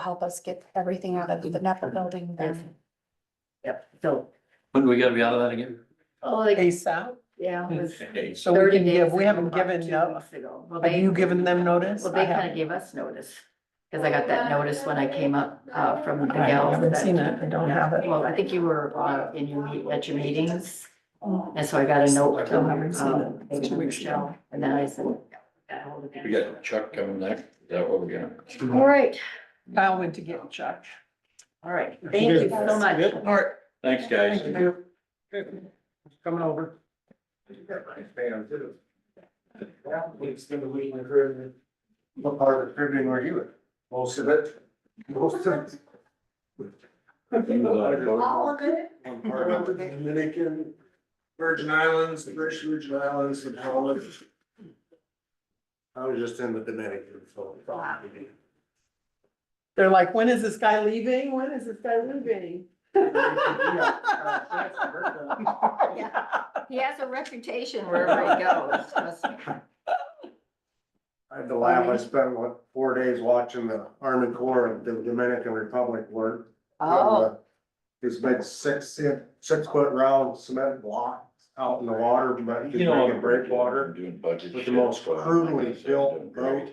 help us get everything out of the NEPA building then. Yep, so, When do we gotta be out of that again? oh, like, ASAP. yeah. it was So we 30 can give, days we haven't ago, given, two no- weeks ago. Well, have they- you given them notice? Well, they I haven't. kind of gave us notice, because I got that notice when I came up, uh, from the I gals. haven't that- seen it. I don't have it. Well, I think you were, uh, in your, meet- at your meetings, and so I got a note Still from, haven't seen it. um, It's two weeks ago. Michelle, and then I said. got ahold of We them. got Chuck coming next, is that what we're All gonna? right, Kyle went to get Chuck. all right, thank you so much. All right. Thanks, guys. Coming over. Yeah, we spend a week in the Caribbean. What part of the Caribbean were you in? Most of it. Most of it. All of it. part of the Dominican, Virgin Islands, the British Virgin Islands, and all of it. I was just in the Dominican, so. They're like, when is this guy leaving? When is this guy leaving? He has a reputation wherever he goes, trust me. I had to laugh, I spent, what, four days watching the Army Corps of the Dominican Republic work. uh, Oh, It's been six, six foot round cement block out in the water, but you know, in breakwater Doing budget. With the most shit, so I'm crudely gonna say built I'm doing great.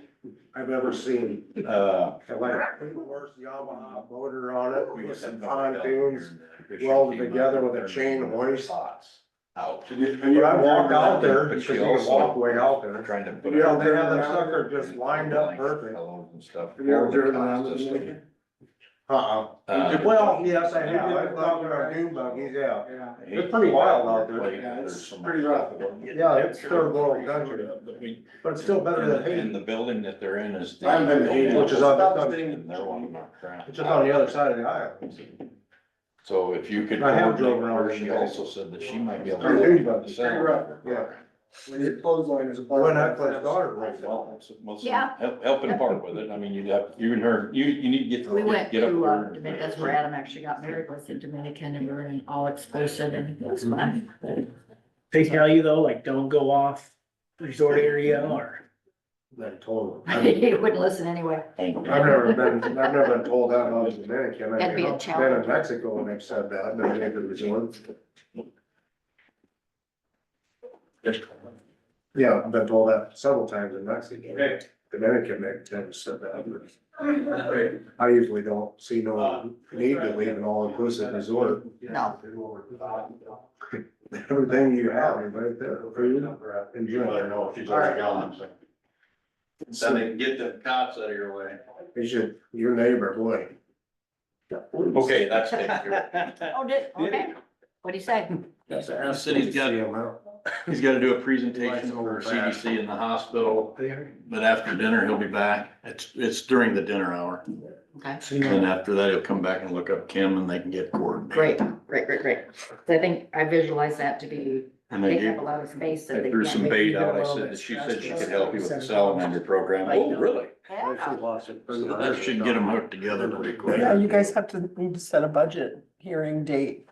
I've ever seen. Uh. It Like, worst Yamaha motor on we it, got with some some pontoons. down here. welded together with a chain hoist. Pots Out. But I walked out there, But because she you can also- walk way out there. Trying to. put You know, it- they have that sucker just lined up perfect. Pillows and stuff. Have you ever driven around the Dominican? Uh-uh. Well, yes, I have. I thought we were dune buggies, yeah. Yeah. It's pretty wild out there. Yeah, it's pretty rough. Yeah, it's third world country, but it's still better than And the Haiti, building that they're in is. I haven't been to Haiti. Which is on- And they're one of my crap. it's just on the other side of the aisle. So if you could. I have coordinate drove around her, in She Haiti. also said that she might be able to. Pretty big, but the it's cell pretty rough, phone yeah. program. When your clothesline is a part. When I of first that. started, Right, right, well, that's- well, so Yeah. help, help in part with it, I mean, you'd have, you and her, you, you need to get. we went get up to, there uh, and- Dominican, that's where Adam actually got married, was in Dominican, and we were in all exclusive, and it was Mm-hmm. fun. They tell you though, like, don't go off resort area or. Then told. I've He wouldn't listen anyway. I've never been, I've never been told that about Dominican, I That'd be mean, a I've been challenge. in Mexico and they've said that, and I've never been to Yeah, I've been told that several times in Mexico, Okay. Dominican, they've never said that, but Okay. I usually don't see Uh, no need to leave an all-inclusive resort. No. Everything you have, is right there, food, enjoy. know if you All right. So they can get the cops out of your way. You should, your neighbor, boy. Okay, that's taken care Oh, did, okay. What'd he say? of. The city's got, See 'em out. he's gotta do a presentation for CDC in the hospital, There. but after dinner, he'll be back. It's, it's during the dinner hour. Okay, So you And then know, after that, he'll come back and look up Kim and they can get coordinated. great, great, great, great. So I think I visualize that to be, And they they do. have a lot of space I that they threw can't some make bait either out, I well. said, that she said she could help you with the salamander program. Oh, really? Yeah. So That should get them hooked together pretty quick. Yeah, you guys have to need to set a budget hearing date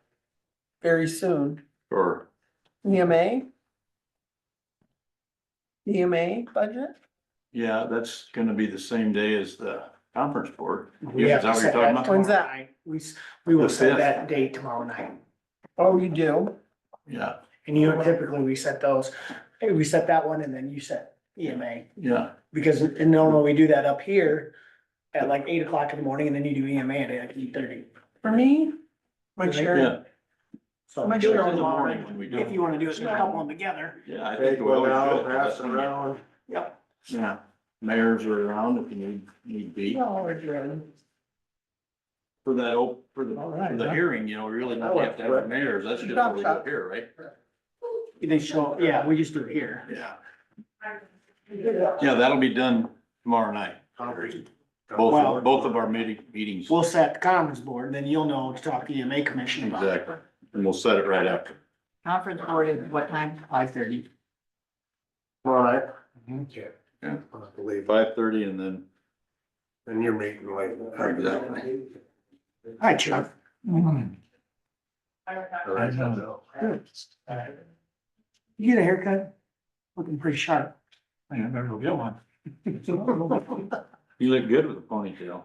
very soon. E Or, EMA? EMA E budget? yeah, that's gonna be the same day as the conference board. we Yeah, have is that what to you're set talking that about? When's that? tomorrow night. We, s- we will The set fifth. that date tomorrow night. Oh, you do? Yeah, And you know, typically we set those, hey, we set that one and then you set EMA. yeah. Because in normally we do that up here at like eight o'clock in the morning and then you do EMA at like eight thirty. For me? Make Yeah. sure, So Make sure if It's you in the wanna- morning when we do If you it. wanna do it, couple them together. Yeah, I think Take we one always out, should. pass it around. Yep. Yeah, mayors are around if you need, need be. Oh, no, we're doing. For that, op- for the, All right, for the huh? hearing, you know, we really don't have to have the mayors, that's just what we do here, right? They show, yeah, we just do it here. Yeah. Yeah, that'll be done tomorrow night. Both, Wow. of- both of our meeting, meetings. We'll set the conference board and then you'll know to talk to EMA commission about it. Exactly, and we'll set it right after. Conference board is what time? Five thirty. All right. Okay. Yeah. I believe, Five thirty and then. and you're meeting like. Exactly. Hi, Chuck. Right. You get a haircut? Looking pretty sharp. I remember we'll get one. You look good with a ponytail.